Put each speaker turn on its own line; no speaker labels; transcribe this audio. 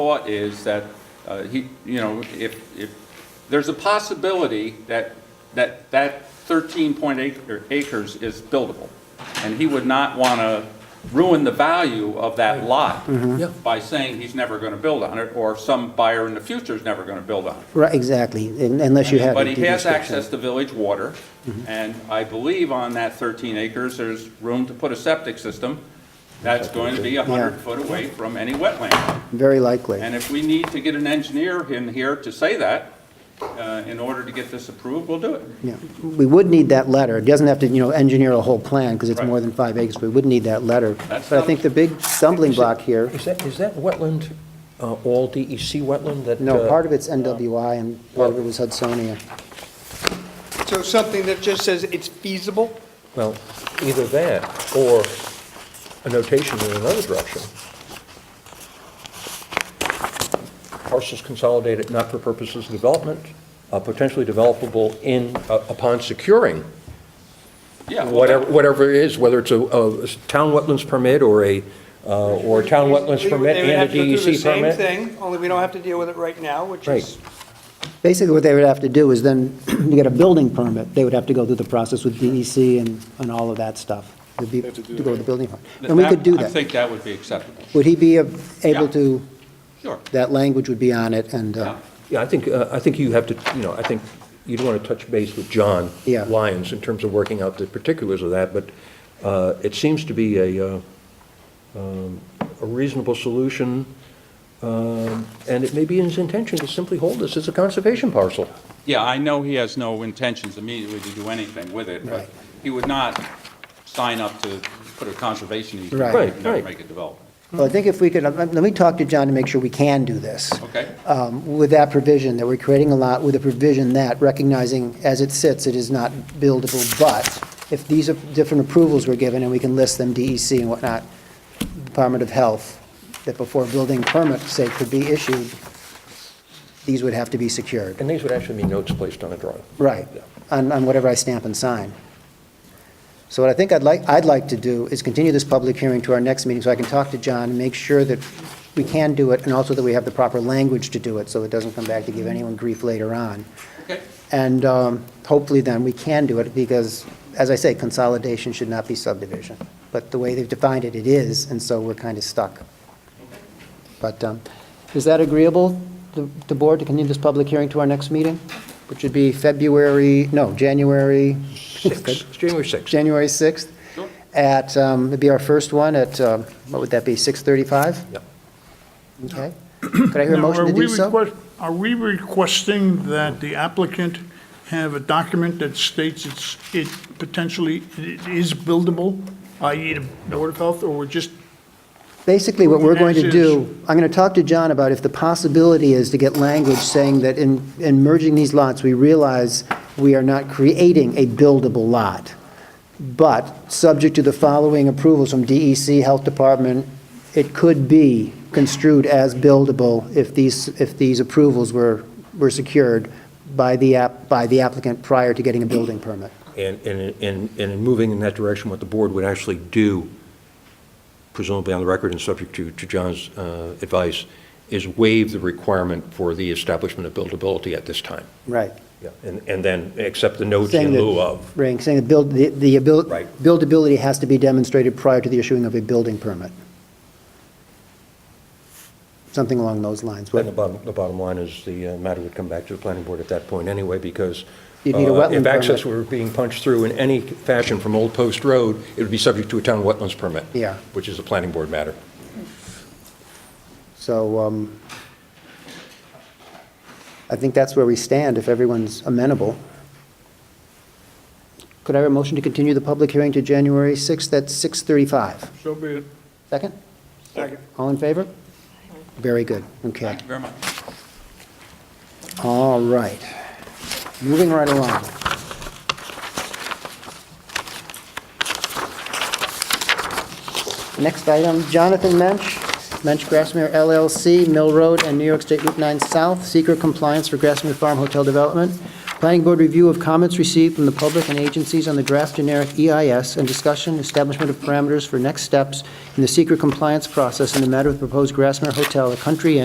thought is that, uh, he, you know, if, if, there's a possibility that, that, that 13.8 acres is buildable, and he would not want to ruin the value of that lot
Mm-hmm.
Yeah.
by saying he's never going to build on it, or some buyer in the future is never going to build on it.
Right, exactly, un- unless you have.
But
a
he
deed Mm-hmm.
has
restriction.
access to village water, and I believe on that 13 acres, there's room to put a septic system that's going to be 100 foot away from any wetland.
Very likely.
And if we need to get an engineer in here to say that, uh, in order to get this approved, we'll do it.
Yeah, We would need that letter. It doesn't have to, you know, engineer a whole plan, because it's
Right.
more than five acres, but we would need that letter.
That's
But I think the big stumbling block here,
Is that, is that wetland, uh, all DEC wetland that?
no,
uh,
part of it's NWI and part of it was Hudsonia.
So something that just says it's feasible?
Well, either that or a notation in another direction. Parcels consolidated not for purposes of development, uh, potentially developable in, uh, upon securing
Yeah, well,
whatever, whatever it is, whether it's a, a town wetlands permit or a, uh, or a town wetlands
We-
permit
They would have
and a
to do the
DEC
same
permit.
thing, only we don't have to deal with it right now, which
Right.
is,
Basically, what they would have to do is then, to get a building permit, they would have to go through the process with DEC and, and all of that stuff. It'd be- To go with the building permit.
that-
And we could do
I
that.
think that would be acceptable,
Would he be uh, able
Yeah.
to,
sure.
that language would be on it, and, uh,
Yeah.
Yeah, I think, uh, I think you have to, you know, I think you'd want to touch base with John
Yeah.
Lyons in terms of working out the particulars of that, but uh, it seems to be a, uh, um, a reasonable solution, um, and it may be his intention to simply hold this as a conservation parcel.
Yeah, I know he has no intentions immediately to do anything with it, but
Right.
he would not sign up to put a conservation easement,
Right.
and
Right,
never
right.
make it develop.
well, I think if we could, let let me talk to John to make sure we can do this.
Okay?
um, with that provision, that we're creating a lot with a provision that, recognizing as it sits, it is not buildable, but if these are different approvals were given, and we can list them, DEC and whatnot, Department of Health, that before a building permit, say, could be issued, these would have to be secured.
And these would actually be notes placed on a drawing.
Right, on, on whatever I stamp and sign. So what I think I'd like, I'd like to do is continue this public hearing to our next meeting, so I can talk to John and make sure that we can do it, and also that we have the proper language to do it, so it doesn't come back to give anyone grief later on.
Okay.
And um, hopefully then we can do it, because, as I say, consolidation should not be subdivision. But the way they've defined it, it is, and so we're kind of stuck. But um, is that agreeable, the the board, to continue this public hearing to our next meeting? Which would be February, no, January,
Six, it's January 6th.
January 6th?
Sure.
At, um, it'd be our first one at, um, what would that be, 6:35?
Yeah.
Okay. Could I hear a
Now,
motion
are
to do
we
so?
request- Are we requesting that the applicant have a document that states it's, it potentially it is buildable, i.e. the Board of Health, or we're just,
Basically, what we're going to
As
do, I'm going to talk to John about if the possibility is to get language saying that in, in merging these lots, we realize we are not creating a buildable lot, but subject to the following approvals from DEC, Health Department, it could be construed as buildable if these, if these approvals were, were secured by the app, by the applicant prior to getting a building permit.
And, and, and and in moving in that direction, what the board would actually do, presumably on the record and subject to, to John's uh, advice, is waive the requirement for the establishment of buildability at this time.
Right.
Yeah. And, and then accept the notes
Saying
in
that-
lieu of.
Right, saying the build, the, the abil-
Right.
buildability has to be demonstrated prior to the issuing of a building permit. Something along those lines.
And
What-
the bottom, the bottom line is the uh, matter would come back to the planning board at that point anyway, because
You'd need a
uh,
wetland
if access
permit.
were being punched through in any fashion from Old Post Road, it would be subject to a town wetlands permit.
Yeah.
Which is a planning board matter.
So, um, I think that's where we stand, if everyone's amenable. Could I have a motion to continue the public hearing to January 6th at 6:35?
so be it.
Second? Second. All in favor? Very good, okay.
Thank you very much.
All right. Moving right along. Next item, Jonathan Mensch, Mensch Grassmere LLC, Mill Road and New York State Route 9 South, seeker compliance for Grassmere Farm Hotel Development. Planning Board review of comments received from the public and agencies on the draft generic EIS and discussion establishment of parameters for next steps in the seeker compliance process in the matter of proposed Grassmere Hotel, a country Inn